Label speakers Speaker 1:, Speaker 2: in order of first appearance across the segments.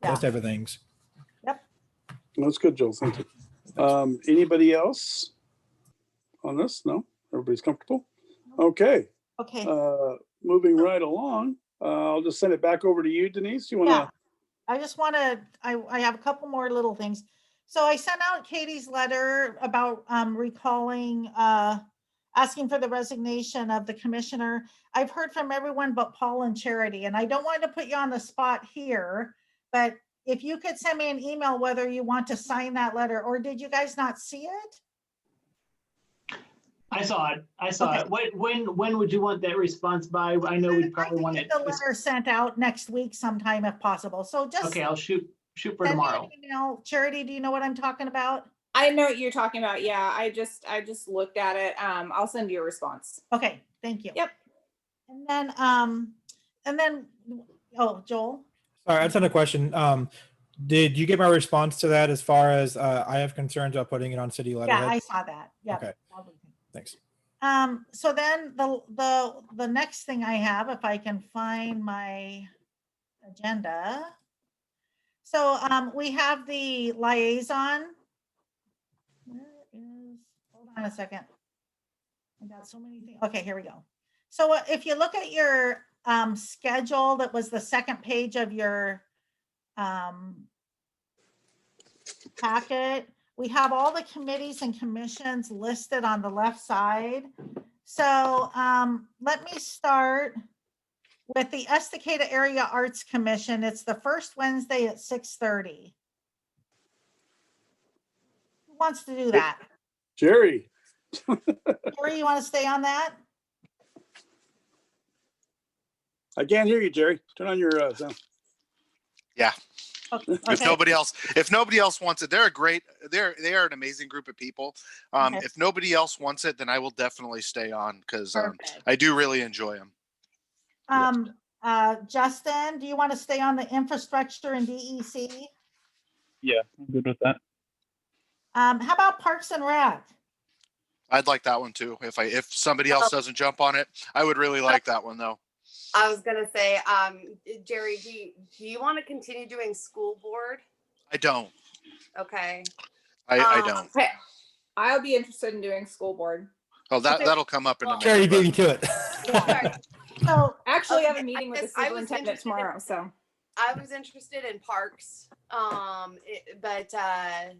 Speaker 1: That's everything's.
Speaker 2: That's good, Joel. Thank you. Um, anybody else on this? No? Everybody's comfortable? Okay,
Speaker 3: Okay,
Speaker 2: uh, moving right along, uh, I'll just send it back over to you, Denise. You
Speaker 3: yeah.
Speaker 2: wanna,
Speaker 3: I just want to, I, I have a couple more little things. So I sent out Katie's letter about um, recalling, uh, asking for the resignation of the commissioner. I've heard from everyone but Paul and Charity, and I don't want to put you on the spot here, but if you could send me an email whether you want to sign that letter, or did you guys not see it?
Speaker 4: I saw it. I saw
Speaker 3: Okay.
Speaker 4: it. When, when, when would you want that response by? I know
Speaker 3: I'd
Speaker 4: we
Speaker 3: like
Speaker 4: probably
Speaker 3: to
Speaker 4: want
Speaker 3: get
Speaker 4: it.
Speaker 3: The letter sent out next week sometime if possible. So just.
Speaker 4: Okay, I'll shoot, shoot for
Speaker 3: send me an
Speaker 4: tomorrow.
Speaker 3: email. Charity, do you know what I'm talking about?
Speaker 5: I know what you're talking about. Yeah, I just I just looked at it. Um, I'll send you a response.
Speaker 3: Okay, thank you.
Speaker 5: Yep.
Speaker 3: And then, um, and then, oh, Joel,
Speaker 1: All right, that's another question. Um, did you get my response to that as far as, uh, I have concerns about putting it on city
Speaker 3: yeah, I
Speaker 1: letterhead?
Speaker 3: saw that, yeah.
Speaker 1: Okay. Thanks.
Speaker 3: Um, so then the, the, the next thing I have, if I can find my agenda. So, um, we have the liaison. Where is, hold on a second. I got so many things. Okay, here we go. So uh, if you look at your, um, schedule, that was the second page of your, um, packet. We have all the committees and commissions listed on the left side. So um, let me start with the Estacada Area Arts Commission. It's the first Wednesday at 6:30. Who wants to do that?
Speaker 2: Jerry?
Speaker 3: Carrie, you want to stay on that?
Speaker 2: I can't hear you, Jerry. Turn on your, uh, sound.
Speaker 3: Okay.
Speaker 6: if nobody else if nobody else wants it they're a great they're they are an amazing group of people um
Speaker 3: Okay.
Speaker 6: if nobody else wants it then i will definitely stay on because um,
Speaker 5: Perfect.
Speaker 6: i do really enjoy them
Speaker 3: Um, uh, Justin, do you want to stay on the infrastructure and E DEC?
Speaker 7: Yeah, I'm good with that.
Speaker 3: Um, How about Parks and Rec?
Speaker 6: i'd like that one too if i if somebody else doesn't jump on it i would really like that one though
Speaker 8: I was gonna say, um, Jerry, do you, do you want to continue doing school board?
Speaker 6: i don't
Speaker 8: Okay.
Speaker 6: i, I
Speaker 8: Um,
Speaker 6: don't
Speaker 5: Okay. I'll be interested in doing school board.
Speaker 6: oh that
Speaker 8: okay.
Speaker 6: that'll come up in a
Speaker 1: Charity
Speaker 6: minute, but-
Speaker 1: beat me to it.
Speaker 3: Yeah. So
Speaker 5: Actually, I have
Speaker 8: Okay,
Speaker 5: a meeting with the
Speaker 8: because I was
Speaker 5: superintendent
Speaker 8: interested in-
Speaker 5: tomorrow, so
Speaker 8: I was interested in parks, um, it- but, uh,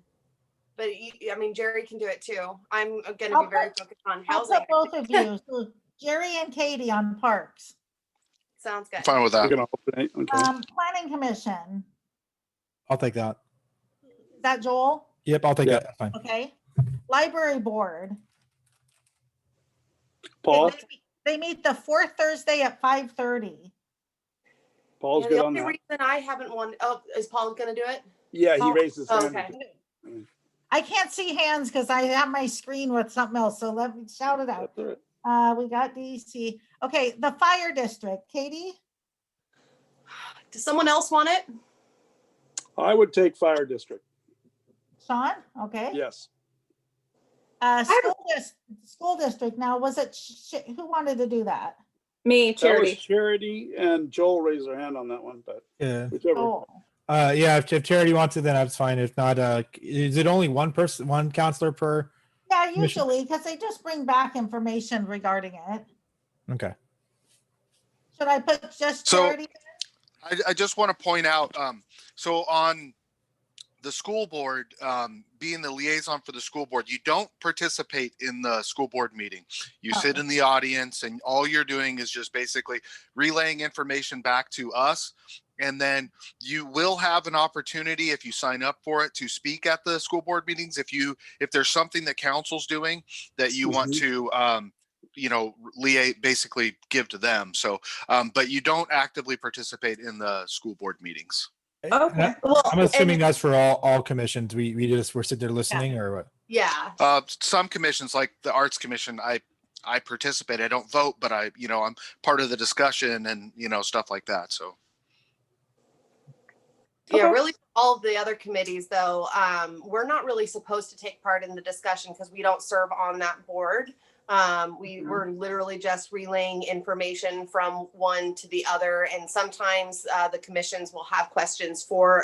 Speaker 8: but you, I mean, Jerry can do it too. I'm gonna
Speaker 3: I'll
Speaker 8: be very
Speaker 3: put-
Speaker 8: focused on
Speaker 3: I'll
Speaker 8: housing.
Speaker 3: put both of you, so Jerry and Katie on Parks.
Speaker 8: Sounds good.
Speaker 6: I'm fine with
Speaker 2: We're
Speaker 6: that
Speaker 2: gonna alternate, okay.
Speaker 3: Um, Planning Commission,
Speaker 1: I'll take that.
Speaker 3: is that Joel?
Speaker 1: Yep, I'll take
Speaker 2: Yeah.
Speaker 1: that. That's Fine.
Speaker 3: Okay. Library Board.
Speaker 2: Paul,
Speaker 3: They meet- They meet the fourth Thursday at five thirty.
Speaker 2: Paul's
Speaker 8: Yeah,
Speaker 2: good
Speaker 8: The
Speaker 2: on
Speaker 8: only
Speaker 2: that.
Speaker 8: reason I haven't won, oh, is Paul gonna do it?
Speaker 2: Yeah, he
Speaker 8: Paul- Oh,
Speaker 2: raised his hand.
Speaker 8: Okay.
Speaker 3: I can't see hands because I have my screen with something else, so let me shout it out.
Speaker 2: That's all right.
Speaker 3: Uh, we got DC. Okay, the Fire District, Katie?
Speaker 8: Does someone else want it?
Speaker 2: I would take fire district,
Speaker 3: Sean, okay.
Speaker 2: yes.
Speaker 3: Uh, school dis- school district, now was it, sh- sh- who wanted to do that?
Speaker 5: me
Speaker 2: That was
Speaker 5: charity.
Speaker 2: Charity and Joel raised their hand on that one, but
Speaker 1: Yeah.
Speaker 2: whichever.
Speaker 3: Oh,
Speaker 1: Uh, yeah, if, if charity wants it, then that's fine. If not, uh, is it only one person, one counselor per?
Speaker 3: yeah,
Speaker 1: Commission.
Speaker 3: usually, because they just bring back information regarding it.
Speaker 1: Okay.
Speaker 3: Should I put just
Speaker 6: So-
Speaker 3: charity?
Speaker 6: I, I just want to point out, um, so on the school board, um, being the liaison for the school board, you don't participate in the school board meeting. You sit in the audience and all you're doing is just basically relaying information back to us. And then you will have an opportunity if you sign up for it to speak at the school board meetings. If you, if there's something that council's doing that you want
Speaker 2: Mhm.
Speaker 6: to, um, you know, liate, basically give to them. So um, but you don't actively participate in the school board meetings.
Speaker 5: Okay.
Speaker 8: Well,
Speaker 3: Oh,
Speaker 1: I'm
Speaker 8: and-
Speaker 1: assuming that's for all, all commissions. We, we just, we're sitting there listening or what?
Speaker 8: Yeah,
Speaker 6: Uh, some commissions, like the Arts Commission, I I participate. I don't vote, but I you know I'm part of the discussion and you know stuff like that. So
Speaker 8: yeah,
Speaker 5: Okay.
Speaker 8: really all of the other committees though, um, we're not really supposed to take part in the discussion because we don't serve on that board. Um, we
Speaker 4: Mhm.
Speaker 8: were literally just relaying information from one to the other and sometimes, uh, the commissions will have questions for